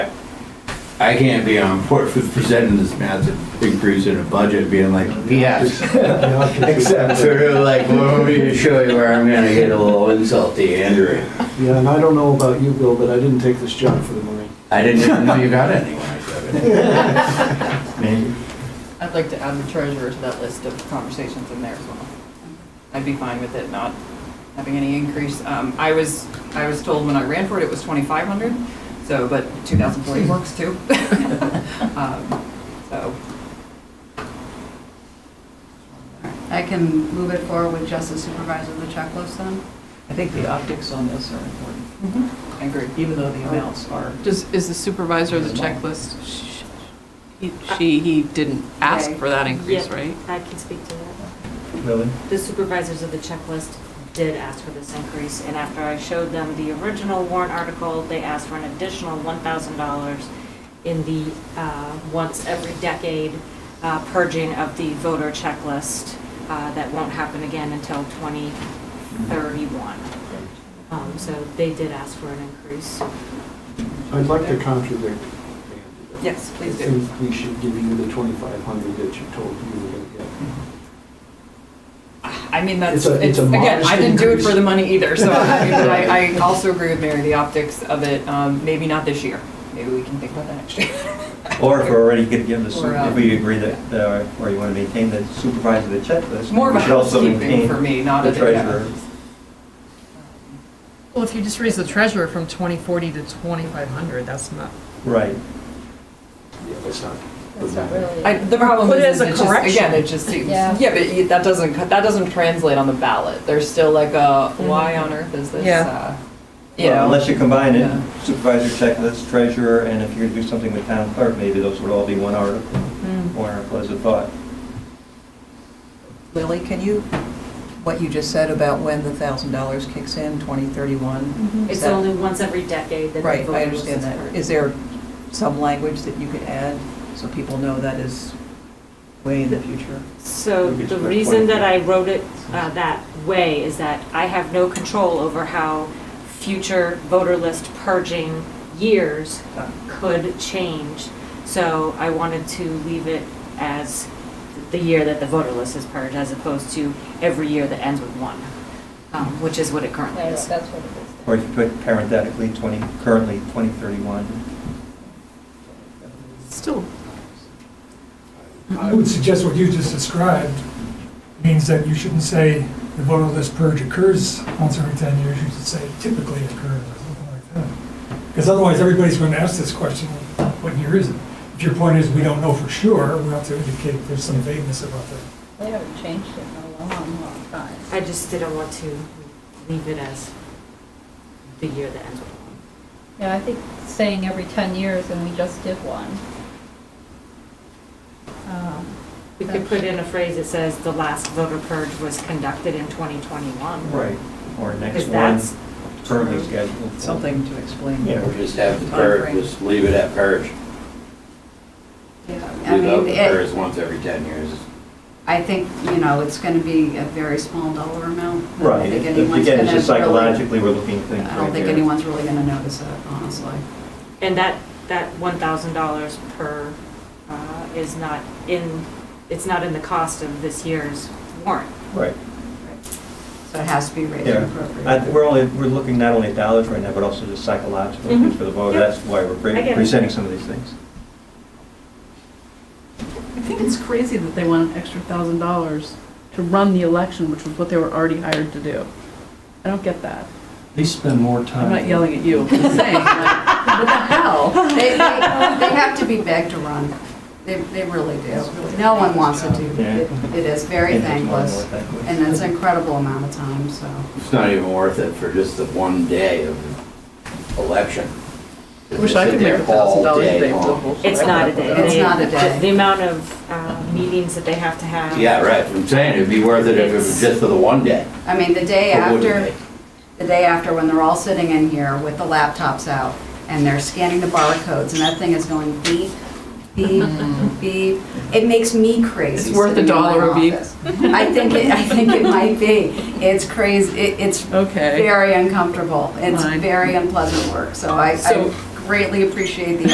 I can't be on board with presenting this massive increase in a budget being like, yes. Except for like, well, let me show you where I'm gonna get a little insulty, Andrew. Yeah, and I don't know about you, Bill, but I didn't take this job for the money. I didn't even know you got any when I said it. Maybe. I'd like to add the treasurer to that list of conversations in there as well. I'd be fine with it not having any increase. Um, I was, I was told when I ran for it, it was twenty-five hundred, so, but two thousand forty works too. Um, So, I can move it forward with just the supervisor of the checklist then? I think the optics on this are important, Mm-hmm. I agree. even though the amounts are. Does, is the supervisor of the checklist, sh- he- Uh, she, he didn't ask for that increase, Yeah, right? I can speak to that. Really? The supervisors of the checklist did ask for this increase, and after I showed them the original warrant article, they asked for an additional $1,000 in the uh, once every decade uh, purging of the voter checklist uh, that won't happen again until 2031. Um, So they did ask for an increase. I'd like to contradict. Andy. Yes, please I do. think we should give you the 2,500 that you told you were going to get. I mean, that's, It's a- it's it's, a again, I modest didn't do it for increase. the money either, so I, but I I also agree with Mary, the optics of it, um, maybe not this year. Maybe we can think about that next year. Or if we're already going to give this, Or, uh, if we agree that, uh, or you want to maintain the supervisor of the checklist. More of we a should also housekeeping maintain for me, not The a. treasurer. Well, if you just raise the treasurer from 2040 to 2500, that's not, Right. Yeah, that's not. That's not really. I, the problem Put it is, as a it's just, again, correction. it just seems, Yeah. yeah, but you- that doesn't, co- that doesn't translate on the ballot. There's still like a, why on earth is this, Yeah. uh, you Well, know? Unless you combine Yeah. it, supervisor checklist, treasurer, and if you're going to do something with town clerk, maybe those would all be one article. Mm. One article as a thought. Lily, can you, what you just said about when the thousand dollars kicks in, 2031? is It's that- only once every decade that the Right, I voter list understand is that. purged. Is there some language that you could add so people know that is way in the future? So the reason that I wrote it uh, that way is that I have no control over how future voter list purging years could change. So I wanted to leave it as the year that the voter list is purged, as opposed to every year that ends with one, um, which is what it currently That's is. that's what it Or if you put parenthetically 20, currently 2031. Still, I would suggest what you just described means that you shouldn't say the voter list purge occurs once every 10 years, you should say typically occurs, or something like that. Because otherwise, everybody's going to ask this question, what year is it? If your point is, we don't know for sure, we have to indicate there's some vagueness about that. is. They haven't changed it in a long, long time. I just didn't want to leave it as the year that ends with one. Yeah, I think saying every 10 years, and we just did one. Um, We could put in a phrase that says the last voter purge was conducted in 2021. Right. Or next Because one, that's currently true. scheduled. for. Something to explain. Yeah. Or just have the purge, just leave it at purge. Yeah, I Leave out mean, the it- purge once every ten years. I think, you know, it's going to be a very small dollar amount. I don't Right. think anyone's Again, it's just gonna really- psychologically, we're looking at things right I there. don't think anyone's really going to notice it, honestly. And that, that $1,000 per uh, is not in, it's not in the cost of this year's warrant. Right. So it has to be raised Yeah. I th- appropriately. We're only, we're looking not only at dollars right now, but also just psychological things Mm-hmm. Mhm. for the voter. Yep. That's why we're I pre- get it. presenting some of these things. I think it's crazy that they want an extra thousand dollars to run the election, which was what they were already hired to do. I don't get that. They spend more Uh, I'm not yelling at you, I'm just saying, like, What the hell? They, they, they have to be begged to run. They, they really do. No one wants to do it. It is very thankless, and it's an incredible amount of time, so. It's not even worth it for just the one day of election. wish I Sit could there make a thousand all dollars a day day. for the long. whole- It's not a day. It's not a day. The amount of uh, meetings that they have to have. Yeah, right, I'm saying, it'd be worth it if it was just for the one day. I mean, the day But wouldn't after, it? the day after, when they're all sitting in here with the laptops out, and they're scanning the barcodes, and that thing is going beep, beep, beep, it makes me crazy. It's worth a sitting in my dollar a beep. office. I think, it- I think it might be. It's crazy, It- it's okay. very uncomfortable. It's Fine. very unpleasant work, so I I So- greatly appreciate the